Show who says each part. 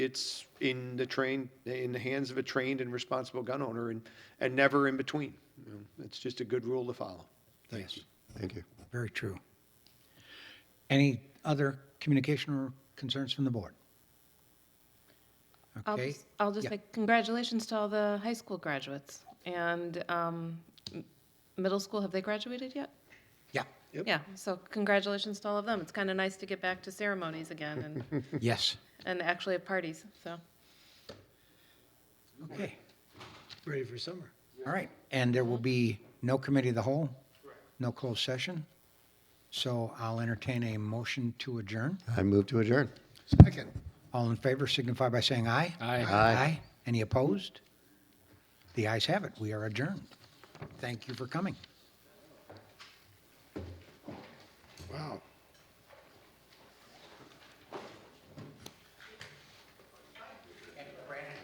Speaker 1: it's in the train, in the hands of a trained and responsible gun owner and, and never in between. You know, It's just a good rule to follow. Thanks.
Speaker 2: Thank you.
Speaker 3: Very true. Any other communication or concerns from the board?
Speaker 4: I'll
Speaker 3: Okay,
Speaker 4: just, I'll just
Speaker 3: Yeah.
Speaker 4: make congratulations to all the high school graduates and um, m- middle school. Have they graduated yet?
Speaker 3: yeah,
Speaker 1: Yep.
Speaker 4: Yeah. So congratulations to all of them. It's kind of nice to get back to ceremonies again and
Speaker 3: yes,
Speaker 4: and actually have parties. So
Speaker 3: okay,
Speaker 5: Ready for summer.
Speaker 3: all right. And there will be no committee of the whole, no closed session. So I'll entertain a motion to adjourn.
Speaker 2: I move to adjourn.
Speaker 5: Second.
Speaker 3: All in favor signify by saying aye.
Speaker 5: Aye.
Speaker 2: Aye.
Speaker 3: Aye. Any opposed? The ayes have it. We are adjourned. Thank you for coming.
Speaker 5: Wow.